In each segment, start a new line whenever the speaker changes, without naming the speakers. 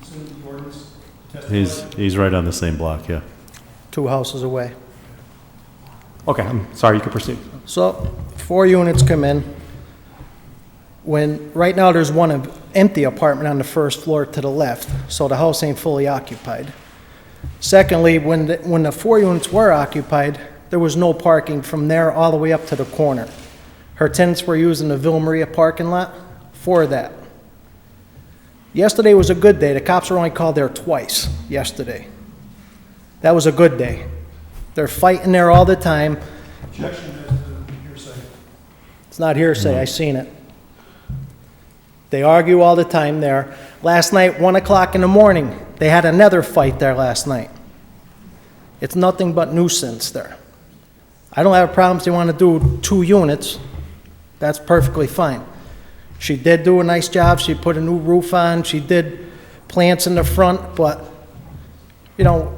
pursuant to the ordinance to testify?
He's, he's right on the same block, yeah.
two houses away.
Okay, I'm sorry, you can proceed.
So, four units come in. When, right now, there's one em- empty apartment on the first floor to the left, so the house ain't fully occupied. Secondly, when, the- when the four units were occupied, there was no parking from there all the way up to the corner. Her tenants were using the Villa Maria parking lot for that. Yesterday was a good day. The cops were only called there twice yesterday. That was a good day. They're fighting there all the time.
Objection as to hearsay.
It's not hearsay, I seen it. They argue all the time there. Last night, 1 o'clock in the morning, they had another fight there last night. It's nothing but nuisance there. I don't have problems, they want to do two units, that's perfectly fine. She did do a nice job, she put a new roof on, she did plants in the front, but, you know,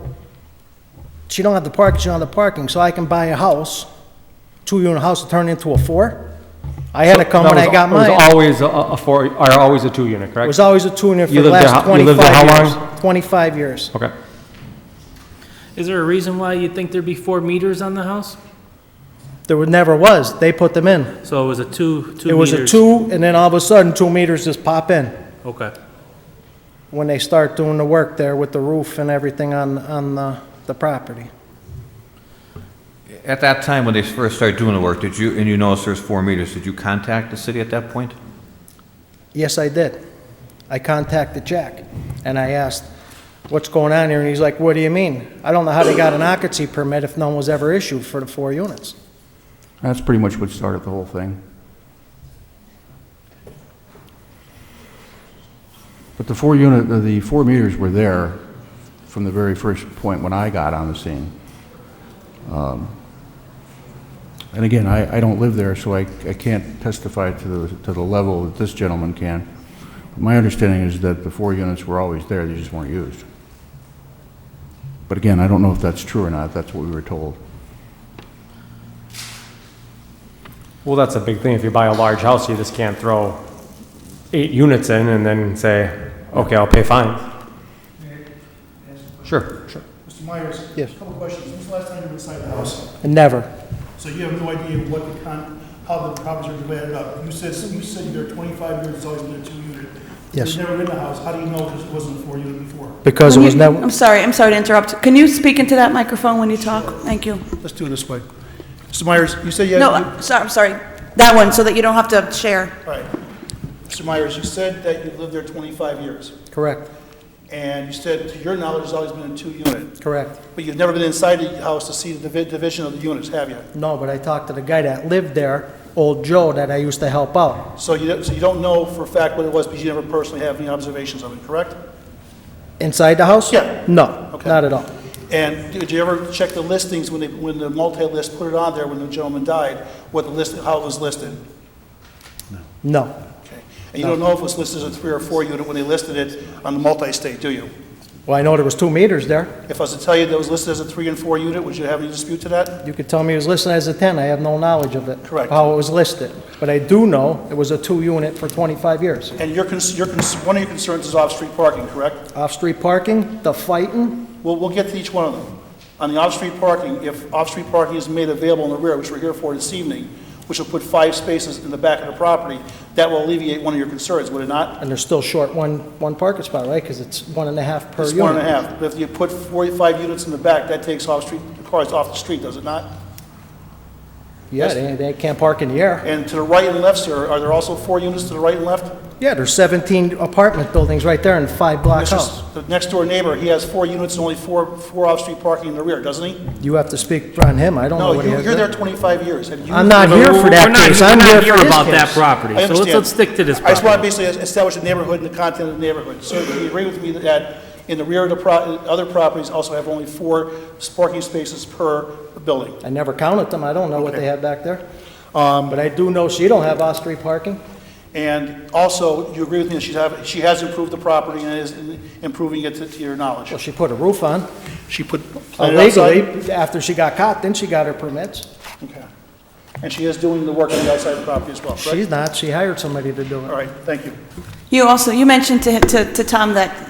she don't have the parking, she don't have the parking, so I can buy a house, two-unit house, and turn it into a four? I had to come when I got mine.
It was always a- a four, or always a two-unit,
It was
correct?
always a tuner for
You
the
lived there
last
how- you lived there
25
how
years.
long?
25 years.
Okay.
Is there a reason why you think there'd be four meters on the house?
There were- never was. They put them in.
So it was a two, two meters?
It was a two, and then all of a sudden, two meters just pop in
Okay.
when they start doing the work there with the roof and everything on, on the, the property.
At that time, when they first started doing the work, did you, and you noticed there's four meters, did you contact the city at that point?
Yes, I did. I contacted Jack, and I asked, what's going on here? And he's like, what do you mean? I don't know how they got an occupancy permit if none was ever issued for the four units.
That's pretty much what started the whole thing. But the four unit, uh, the- the four meters were there from the very first point when I got on the scene. Um, And again, I, I don't live there, so I, I can't testify to the, to the level that this gentleman can. But My understanding is that the four units were always there, they just weren't used. But again, I don't know if that's true or not, that's what we were told.
Well, that's a big thing. If you buy a large house, you just can't throw eight units in and then say, okay, I'll pay fines. Sure, sure.
Mr. Myers?
Yes.
a Couple questions. When's the last time you were inside the house?
Never.
So you have no idea what the con, how the properties are divided up. You said, you said you're 25 years, it's always been a two-unit.
Yes.
There's never been a house. How do you know this wasn't a four-unit before?
Because it
When
was
you-
never,
I'm sorry, I'm sorry to interrupt. Can you speak into that microphone when you talk? Thank you.
Let's do it this way. Mr. Myers, you said you had...
No, I'm sorry, I'm sorry. That one, so that you don't have to share.
All right. Mr. Myers, you said that you've lived there 25 years,
correct,
and you said, to your knowledge, it's always been a two-unit,
correct.
but you've never been inside the house to see the divi- division of the units, have you?
No, but I talked to the guy that lived there, old Joe, that I used to help out.
So you don't- so you don't know for a fact what it was, because you never personally have any observations of it, correct?
Inside the house?
Yeah.
No,
Okay.
not at all.
And did you ever check the listings when they, when the multi-list put it on there when the gentleman died, what the list, how it was listed?
No.
Okay. And you don't know if it was listed as a three or four unit when they listed it on the multi-state, do you?
Well, I know there was two meters there.
If I was to tell you that it was listed as a three and four unit, would you have any dispute to that?
You could tell me it was listed as a 10, I have no knowledge of it.
Correct.
How it was listed. But I do know it was a two-unit for 25 years.
And your, cons- your, cons- one of your concerns is off-street parking, correct?
Off-street parking, the fighting,
We'll, we'll get to each one of them. On the off-street parking, if off-street parking is made available in the rear, which we're here for this evening, which will put five spaces in the back of the property, that will alleviate one of your concerns, would it not?
and they're still short one, one parking spot, right? Because it's one and a half per
It's
unit.
one and a half. But if you put 45 units in the back, that takes off-street, cars off the street, does it not?
Yeah, they, they can't park in the air.
And to the right and left, sir, are there also four units to the right and left?
Yeah, there's 17 apartment buildings right there and five block house.
Mr. The next-door neighbor, he has four units and only four, four off-street parking in the rear, doesn't he?
You have to speak on him, I don't know
No,
what he
you-
has.
you're there
there.
25 years. Have you-
I'm not
But
here
we're-
for that
we're not-
case,
we're
I'm
not
here for his
about that
case.
property,
I
so let's,
understand.
let's stick to this
I just want to
property.
basically establish the neighborhood and the content of the neighborhood. So do you agree with me that in the rear of the pro, other properties also have only four parking spaces per building?
I never counted them, I don't know what
Okay.
they have back there. But I do know she don't have off-street parking.
And also, you agree with me that she's have, she has improved the property and is improving it to, to your knowledge?
Well, she put a roof on
She put. planted outside?
illegally after she got caught, then she got her permits.
Okay. And she is doing the work on the outside of the property as well, correct?
She's not, she hired somebody to do
All
it.
right, thank you.
You also, you mentioned to, to, to Tom that